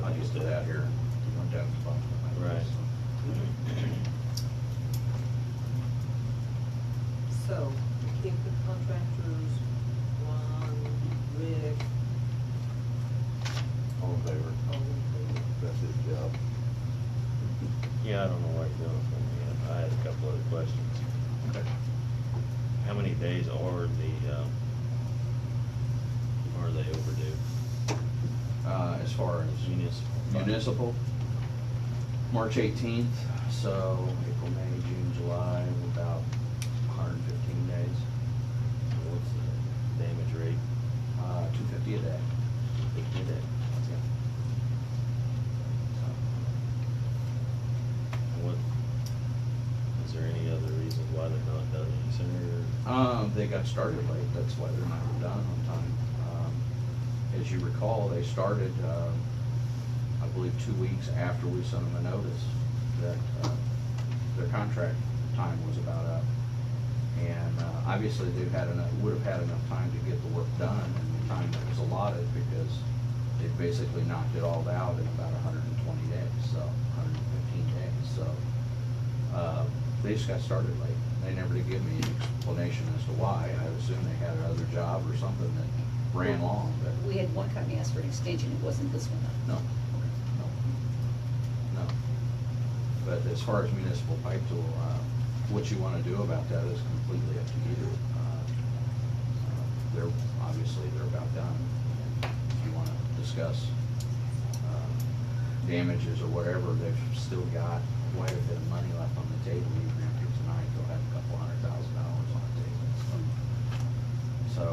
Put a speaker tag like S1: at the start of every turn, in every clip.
S1: out here, you went down the bottom of my list.
S2: So, if the contractors, Ron, Rick,
S1: All in favor?
S2: all in favor?
S1: That's his job.
S3: Yeah, I don't know where you're going from here. I had a couple other questions.
S1: Okay.
S3: How many days are the, um, are they overdue?
S4: uh, as far as
S3: Municipal.
S4: municipal. March 18th, so April, May, June, July, about 115 days,
S3: What's the damage rate?
S4: uh, 250 a day.
S3: They did it. What, is there any other reason why they're not done any sooner? or-
S4: Um, They got started late, that's why they're not done on time. Um, As you recall, they started, uh, I believe, two weeks after we sent them a notice that uh, their contract time was about up. And uh, obviously, they've had enough, would have had enough time to get the work done in the time that was allotted because they basically knocked it all out in about hundred and twenty days, so, hundred and fifteen days, so. uh, They just got started late. They never did give me an explanation as to why. I assume they had another job or something that ran long, but.
S5: We had one company ask for an extension, it wasn't this one though.
S4: No, no, no. But as far as municipal pipe tool, uh, what you want to do about that is completely up to you. Uh, uh, They're, obviously, they're about done. If you want to discuss uh, damages or whatever, they've still got quite a bit of money left on the table. Even after tonight, they'll have a couple hundred thousand dollars on the table. So,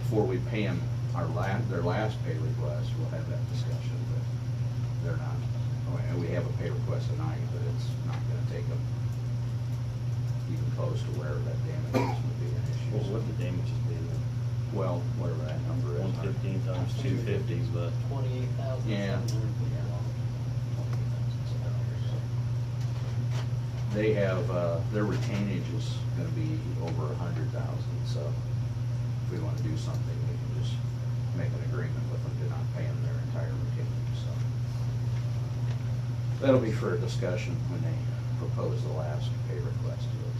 S4: before we pay them our la, their last pay request, we'll have that discussion, but they're not. oh, and We have a pay request tonight, but it's not gonna take them even close to where that damage is would be an issue.
S3: Well, what the damages be?
S4: Well, whatever that number is.
S3: One fifteen times two fifty, but
S6: Twenty-eight thousand.
S4: Yeah. They have, uh, their retainage is gonna be over a hundred thousand, so if we wanna do something, we can just make an agreement with them to not pay them their entire retainage, so. That'll be for a discussion when they propose the last pay request to us.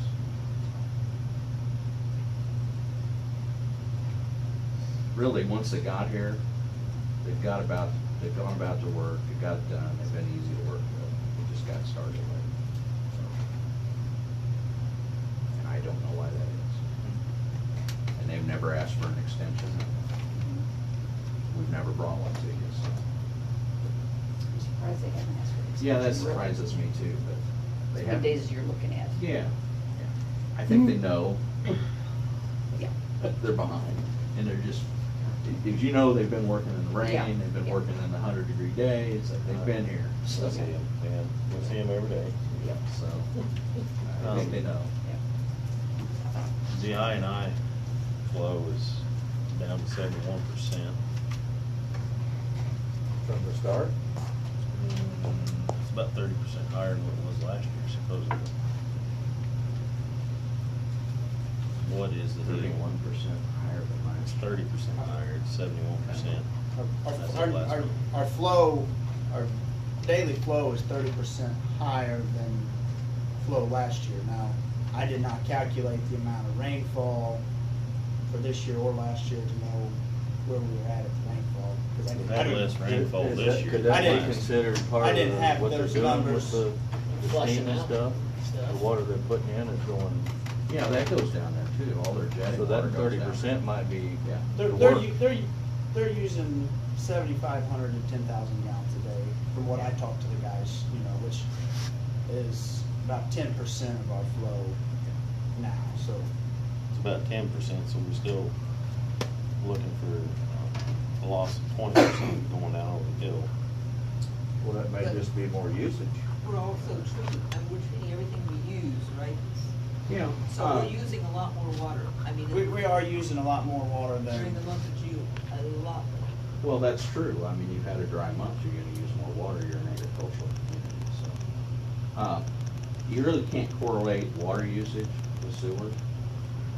S4: Really, once they got here, they've got about, they've gone about their work, they got it done, they've been easy to work with, they just got started late. so. And I don't know why that is. And they've never asked for an extension. We've never brought one to you, so.
S5: I'm surprised they haven't asked for an extension.
S4: Yeah, that
S5: really.
S4: surprises me too, but they
S5: The
S4: have.
S5: days you're looking at.
S4: Yeah, Hmm. yeah. I think they know
S5: Yeah.
S4: they're behind, and they're just, as you know, they've been working in the
S5: Yeah,
S4: rain, they've been
S5: yeah.
S4: working in the hundred degree days, like, they've been here, so.
S3: we see him, man. We see him every day.
S4: Yep, so, I think they know.
S5: Yeah.
S3: The I and I flow is down to seventy-one percent.
S1: From the start?
S3: It's about thirty percent higher than what it was last year supposedly. What is the deal?
S4: Thirty-one percent higher than
S3: It's
S4: last.
S3: thirty percent higher, it's seventy-one percent.
S6: Our,
S3: That's
S6: our,
S3: the last
S6: our,
S3: one.
S6: our flow, our daily flow is thirty percent higher than flow last year. Now, I did not calculate the amount of rainfall for this year or last year to know where we were at at the rainfall. 'cause I
S3: We
S6: didn't- I
S3: had
S6: didn't-
S3: less rainfall this year.
S7: Could
S3: than
S6: I
S7: that
S6: didn't-
S7: be
S3: last.
S7: considered
S6: I
S7: part
S6: didn't have
S7: of what they're
S6: those
S7: doing
S6: numbers
S7: with the the
S6: flushing
S7: steam and
S6: out
S7: stuff?
S6: and stuff.
S7: The water they're putting in is going,
S4: Yeah, that goes down there too, all their jetting
S7: so
S4: water
S7: that
S4: goes
S7: thirty
S4: down.
S7: percent might be
S4: Yeah.
S6: They're,
S7: the
S6: they're,
S7: work.
S6: u- they're, u- they're using seventy-five hundred to ten thousand gallons a day, from what I talked to the guys, you know, which is about ten percent of our flow now, so.
S3: It's about ten percent, so we're still looking for a loss of twenty percent going down over the hill.
S1: Well, that may just be more usage.
S2: We're also treating, and we're treating everything we use, right?
S4: Yeah.
S2: So
S4: Uh,
S2: we're using a lot more water, I mean,
S6: Uh, We, we are using a lot more water
S2: during the
S6: than,
S2: month of June, a lot more.
S4: Well, that's true. I mean, you've had a dry month, you're gonna use more water, you're an agricultural community, so. Uh, You really can't correlate water usage with sewer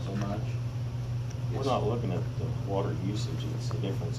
S4: so much.
S3: We're
S4: It's-
S3: not looking at the water usage, it's the difference